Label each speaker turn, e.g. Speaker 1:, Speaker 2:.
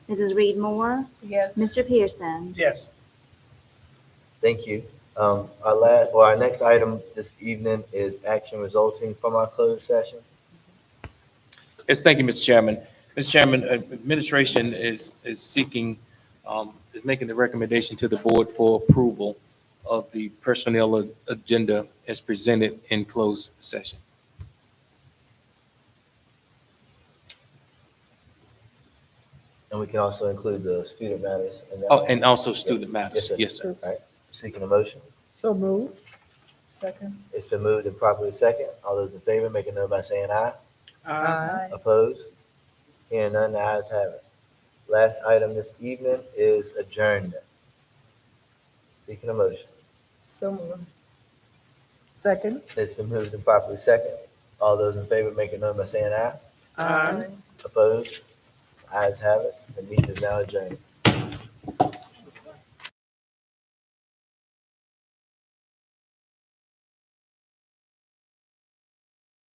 Speaker 1: Mrs. Reed Moore,
Speaker 2: Yes.
Speaker 1: Mr. Pearson.
Speaker 3: Yes.
Speaker 4: Thank you. Um, our last, or our next item this evening is action resulting from our closed session.
Speaker 5: Yes, thank you, Mr. Chairman. Mr. Chairman, uh, administration is, is seeking, um, is making the recommendation to the board for approval of the personnel a- agenda as presented in closed session.
Speaker 4: And we can also include the student matters. in that.
Speaker 5: Oh, and also student
Speaker 4: Yes,
Speaker 5: matters.
Speaker 4: sir.
Speaker 5: Yes, sir.
Speaker 4: All right, seeking a motion.
Speaker 2: So moved. Second.
Speaker 4: It's been moved and properly second. All those in favor, make a note by saying aye. Opposed? Hearing none, the ayes have it. Last item this evening is adjournment. Seeking a motion.
Speaker 2: So moved. Second.
Speaker 4: It's been moved and properly second. All those in favor, make a note by saying aye. Opposed? Ayes have it. The meeting is now adjourned.